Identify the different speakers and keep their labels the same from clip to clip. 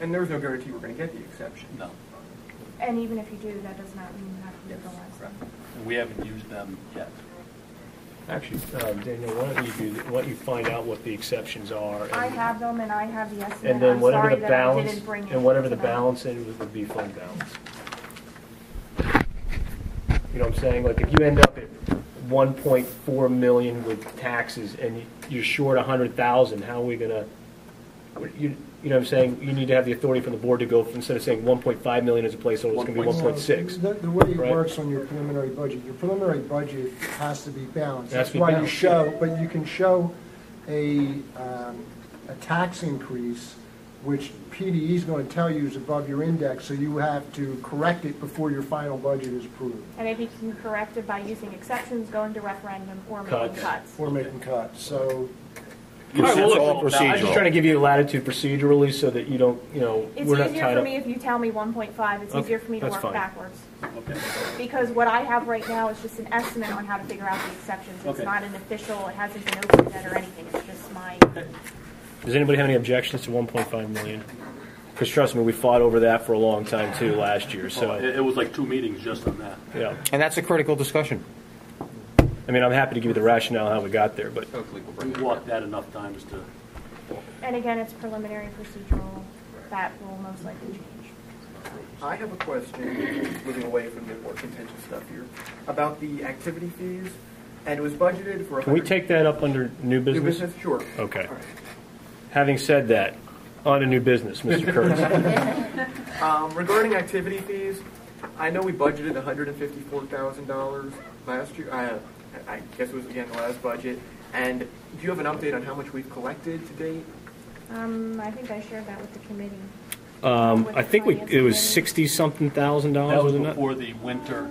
Speaker 1: And there was no guarantee we're going to get the exception.
Speaker 2: No.
Speaker 3: And even if you do, that does not mean you have to
Speaker 1: Yes,
Speaker 3: utilize
Speaker 1: correct.
Speaker 3: them.
Speaker 2: And we haven't used them yet.
Speaker 4: Actually, uh, Daniel, why don't you do, th- why don't you find out what the exceptions are? and-
Speaker 3: I have them and I have the estimate.
Speaker 4: And then
Speaker 3: I'm
Speaker 4: whatever
Speaker 3: sorry
Speaker 4: the
Speaker 3: that I
Speaker 4: balance,
Speaker 3: didn't bring it
Speaker 4: and whatever the
Speaker 3: tonight.
Speaker 4: balance is, would be fund balance. You know what I'm saying? Like, if you end up at 1.4 million with taxes and you're short 100,000, how are we gonna, you, you know what I'm saying? You need to have the authority from the board to go, from- instead of saying 1.5 million as a placeholder, it's gonna be 1.6.
Speaker 5: The, the way it
Speaker 4: right?
Speaker 5: works on your preliminary budget, your preliminary budget has to be balanced.
Speaker 4: It has
Speaker 5: That's
Speaker 4: to be
Speaker 5: why you
Speaker 4: balanced.
Speaker 5: show, but you can show a, um, a tax increase, which PDE is going to tell you is above your index, so you have to correct it before your final budget is approved,
Speaker 3: And if you can correct it by using exceptions, going to referendum, or making
Speaker 4: Cuts.
Speaker 3: cuts.
Speaker 5: or making cuts. So
Speaker 4: All right, well,
Speaker 6: It's
Speaker 4: look,
Speaker 6: all
Speaker 4: I'm just trying to give you latitude procedurally so that you don't, you know,
Speaker 3: It's
Speaker 4: we're not
Speaker 3: easier
Speaker 4: tied
Speaker 3: for
Speaker 4: up.
Speaker 3: me if you tell me 1.5, it's
Speaker 4: Okay,
Speaker 3: easier for me to
Speaker 4: that's
Speaker 3: work
Speaker 4: fine.
Speaker 3: backwards.
Speaker 2: Okay.
Speaker 3: Because what I have right now is just an estimate on how to figure out the exceptions. It's
Speaker 2: Okay.
Speaker 3: not an official, it hasn't been opened yet or anything, it's just my,
Speaker 4: Does anybody have any objections to 1.5 million? Because trust me, we fought over that for a long time too last year,
Speaker 2: So
Speaker 4: so,
Speaker 2: Oh, it, it was like two meetings just on that.
Speaker 4: yeah.
Speaker 6: And that's a critical discussion.
Speaker 4: I mean, I'm happy to give you the rationale how we got there, but
Speaker 1: Hopefully we'll
Speaker 2: We
Speaker 1: bring it
Speaker 2: walked that enough times to,
Speaker 3: and again, it's preliminary procedural, that will most likely change.
Speaker 1: I have a question, moving away from the more contentious stuff here, about the activity fees, and it was budgeted for.
Speaker 4: can we
Speaker 1: 100
Speaker 4: take that up under new
Speaker 1: New
Speaker 4: business?
Speaker 1: business? Sure.
Speaker 4: Okay.
Speaker 1: All right.
Speaker 4: Having said that, on to new business, Mr. Kurtz.
Speaker 1: Um, regarding activity fees, I know we budgeted hundred and fifty-four thousand dollars last year, I, I guess it was again the last budget, and do you have an update on how much we've collected to date?
Speaker 3: Um, I think I shared that with the committee.
Speaker 4: Um, I think we, it was 60-something thousand
Speaker 2: that
Speaker 4: dollars,
Speaker 2: was
Speaker 4: wasn't it?
Speaker 2: before the winter.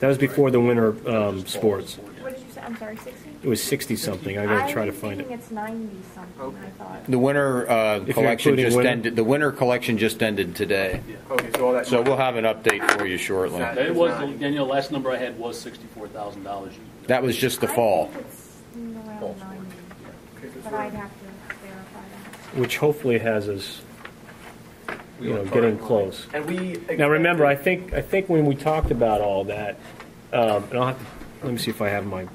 Speaker 4: That was before the winter um, sports.
Speaker 3: What did you say, I'm sorry, 60?
Speaker 4: It was 60-something, I gotta try to find
Speaker 3: I'm thinking
Speaker 4: it.
Speaker 3: it's 90-something, I
Speaker 1: Okay.
Speaker 3: thought.
Speaker 6: The winter uh,
Speaker 4: you're
Speaker 6: collection
Speaker 4: including
Speaker 6: just
Speaker 4: winter.
Speaker 6: ended, the winter collection just ended today.
Speaker 1: Okay, so all that.
Speaker 6: So we'll have an update for you shortly.
Speaker 1: Exactly.
Speaker 2: It was, Daniel, last number I had was sixty-four thousand dollars.
Speaker 6: That was just the fall.
Speaker 3: I think it's around 90,
Speaker 1: Okay, so it's
Speaker 3: but
Speaker 1: around-
Speaker 3: I'd have to verify that.
Speaker 4: Which hopefully has us, you know, getting close.
Speaker 1: And we.
Speaker 4: Now, remember, I think, I think when we talked about all that, um, and I'll have to, let me see if I have my,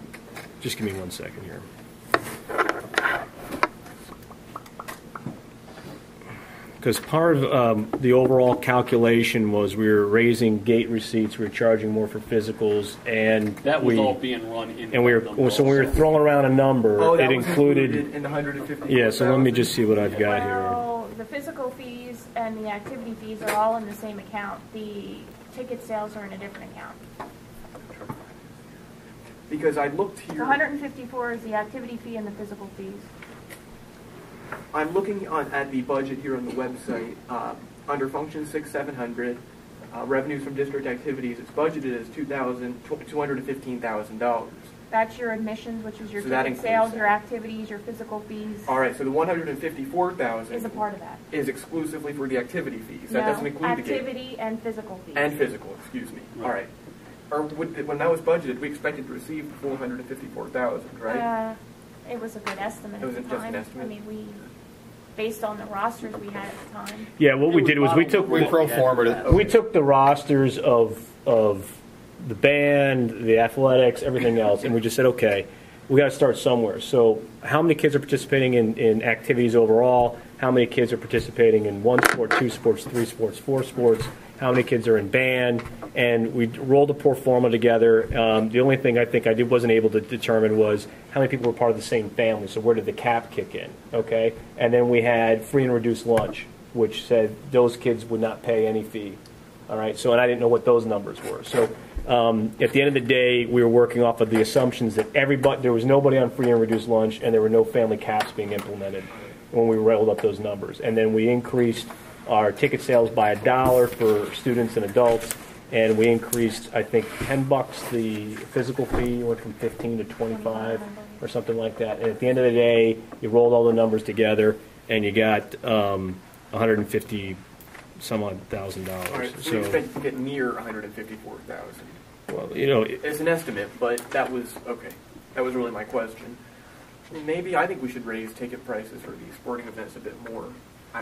Speaker 4: just give me one second here. Because part of um, the overall calculation was we were raising gate receipts, we were charging more for physicals, and
Speaker 2: That was
Speaker 4: we-
Speaker 2: all being run in.
Speaker 4: And we were, so when we were throwing around a number,
Speaker 1: Oh, that
Speaker 4: it
Speaker 1: was
Speaker 4: included,
Speaker 1: In the hundred and fifty.
Speaker 4: yeah, so let me just see what I've got here.
Speaker 3: Well, the physical fees and the activity fees are all in the same account. The ticket sales are in a different account.
Speaker 1: Because I looked
Speaker 3: The
Speaker 1: here.
Speaker 3: 154 is the activity fee and the physical fees.
Speaker 1: I'm looking on, at the budget here on the website, uh, under function six, seven hundred, uh, revenues from district activities, it's budgeted as two thousand, two hundred and fifteen thousand dollars.
Speaker 3: That's your admissions, which is your
Speaker 1: So that
Speaker 3: ticket
Speaker 1: includes
Speaker 3: sales,
Speaker 1: that.
Speaker 3: your activities, your physical fees
Speaker 1: All right, so the one hundred and fifty-four thousand
Speaker 3: is a part of that.
Speaker 1: is exclusively for the activity fees. That
Speaker 3: No,
Speaker 1: doesn't include the gate
Speaker 3: Activity and physical fees.
Speaker 1: and physical. Excuse me. All right. Or would, when that was budgeted, we expected to receive four hundred and fifty-four thousand, right?
Speaker 3: Uh, It was a good estimate
Speaker 1: It
Speaker 3: at
Speaker 1: was
Speaker 3: the
Speaker 1: just an
Speaker 3: time. I
Speaker 1: estimate.
Speaker 3: mean, we, based on the rosters we had at the time.
Speaker 4: Yeah, what we did was we took.
Speaker 6: We pro forma it.
Speaker 4: We took the rosters of of the band, the athletics, everything else, and we just said, okay, we got to start somewhere. So, how many kids are participating in, in activities overall? How many kids are participating in one sport, two sports, three sports, four sports? How many kids are in band? And we rolled a pro forma together. Um, the only thing I think I did wasn't able to determine was how many people were part of the same family. So where did the cap kick in? Okay, and then we had free and reduced lunch, which said those kids would not pay any fee. All right, so, and I didn't know what those numbers were. So, um, at the end of the day, we were working off of the assumptions that everybody, there was nobody on free and reduced lunch, and there were no family caps being implemented when we rolled up those numbers. And then we increased our ticket sales by a dollar for students and adults, and we increased, I think, ten bucks the physical fee, went from fifteen to twenty-five or something like that. And at the end of the day, you rolled all the numbers together, and you got, um, hundred and fifty some odd thousand dollars.
Speaker 1: All right. So, we
Speaker 4: So,
Speaker 1: expected to get near one hundred and fifty-four thousand.
Speaker 4: well, you know, it-
Speaker 1: It's an estimate, but that was okay. That was really my question. Maybe I think we should raise ticket prices for these sporting events a bit more.